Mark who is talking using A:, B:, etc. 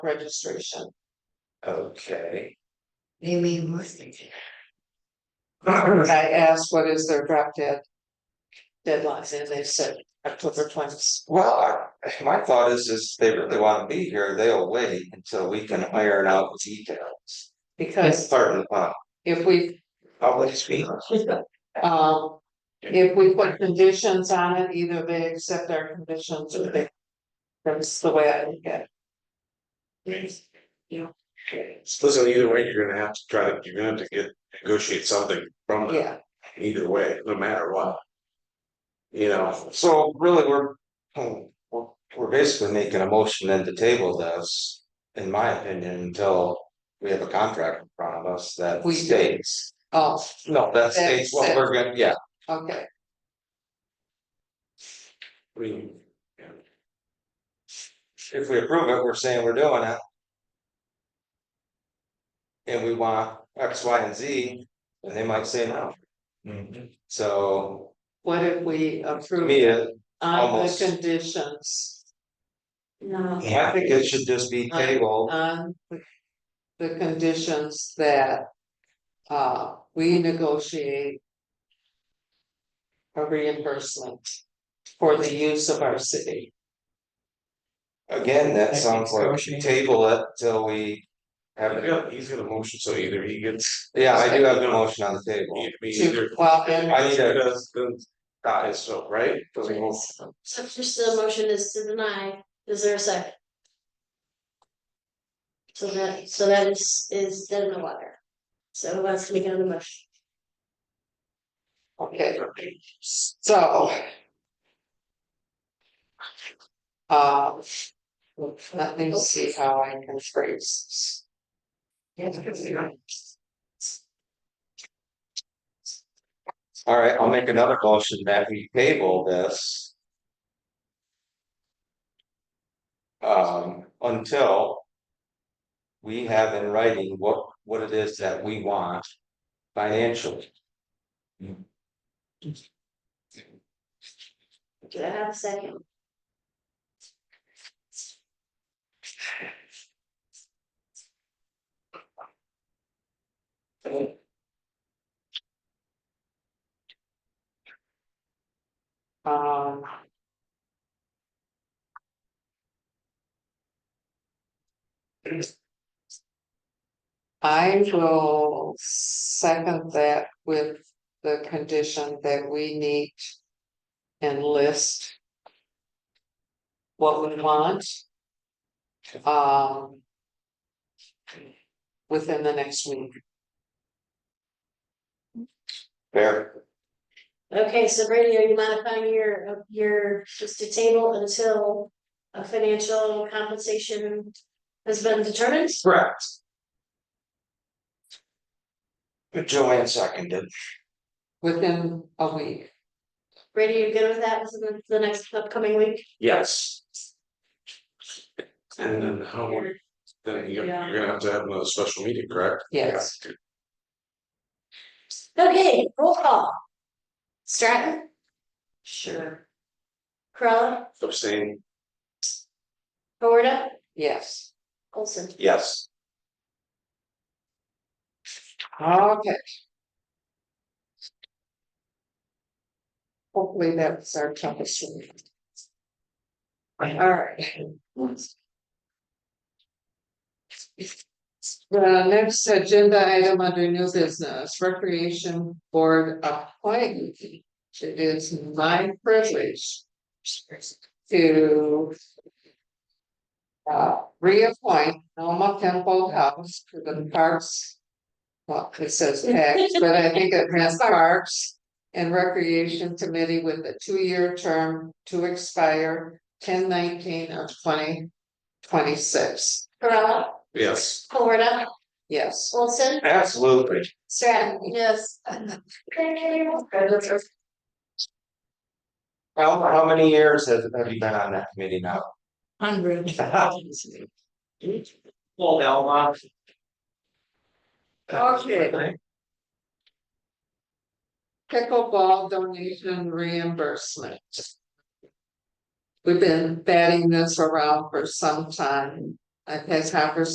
A: registration.
B: Okay,
A: They may I asked, what is their drop dead? Deadlines, and they said October twentieth.
B: well, I- my thought is, is they really wanna be here, they'll wait until we can iron out the details. That's
A: Because
B: part of the problem,
A: if we
B: uh, public speaking.
A: Um, if we put conditions on it, either they accept our conditions or they. That's the way I look at it.
C: So Listen, either way, you're gonna have to try to, you're gonna have to get, negotiate something from them,
A: Yeah,
C: either way, no matter what. You know,
B: So really, we're, hmm, we're, we're basically making a motion then to table this, in my opinion, until we have a contract in front of us that
A: We do.
B: states.
A: oh,
B: No,
A: That
B: that states what
A: says-
B: we're gonna, yeah,
A: okay,
C: I mean,
B: if we approve it, we're saying we're doing it. And we want X, Y, and Z, and they might say no. So,
A: what if we
B: to
A: approve
B: me, it-
A: on the
B: almost.
A: conditions? No.
B: I think it should just be tabled,
A: On the- Uh, the conditions that. Uh, we negotiate. A reimbursement for the use of our city.
B: again, that sounds like table it till we have, it.
C: yeah, he's gonna motion, so either he gets,
B: yeah, I do have the motion on the table.
C: I mean,
A: To,
C: either.
A: well, and
B: I need
C: Either
B: to,
C: does, then dies, so, right? Doesn't go-
D: So just the motion is to deny, is there a second? So that, so that is, is dead in the water. So let's make another motion.
A: Okay, so. Uh, let me see how I can phrase this.
B: all right, I'll make another motion that we table this. Um, until. We have in writing what, what it is that we want financially.
D: Do I have a second?
A: Um. I will second that with the condition that we need. And list. What we want. Um. Within the next week.
B: Fair,
D: Okay, so Brady, are you modifying your, your, just to table until a financial compensation has been determined?
B: correct. Joanne seconded,
A: Within a week,
D: Brady, you good with that within the- the next upcoming week?
B: yes,
C: And then how, then you're, you're gonna have to have another special meeting, correct?
A: yes,
D: Okay, roll call. Stratton,
A: sure,
D: Corolla,
C: Abstain.
D: Gorda,
A: yes.
D: Olson.
B: yes.
A: Okay. Hopefully that's our toughest. one. Alright. The next agenda item under new business, recreation board appointment. It is my privilege. To. Uh, reappoint Norma Temple House to the Parks well, it says tax, but I think it has parks and recreation committee with a two-year term to expire ten nineteen of twenty twenty-six.
D: Corolla,
C: Yes,
D: Florida,
A: Yes,
D: Olson,
B: Absolutely.
D: Stratton, yes.
B: How, how many years have, have you been on that committee now?
D: Hundred.
B: Well, Elma.
A: Okay. pickleball donation reimbursement. We've been batting this around for some time. I've had conversations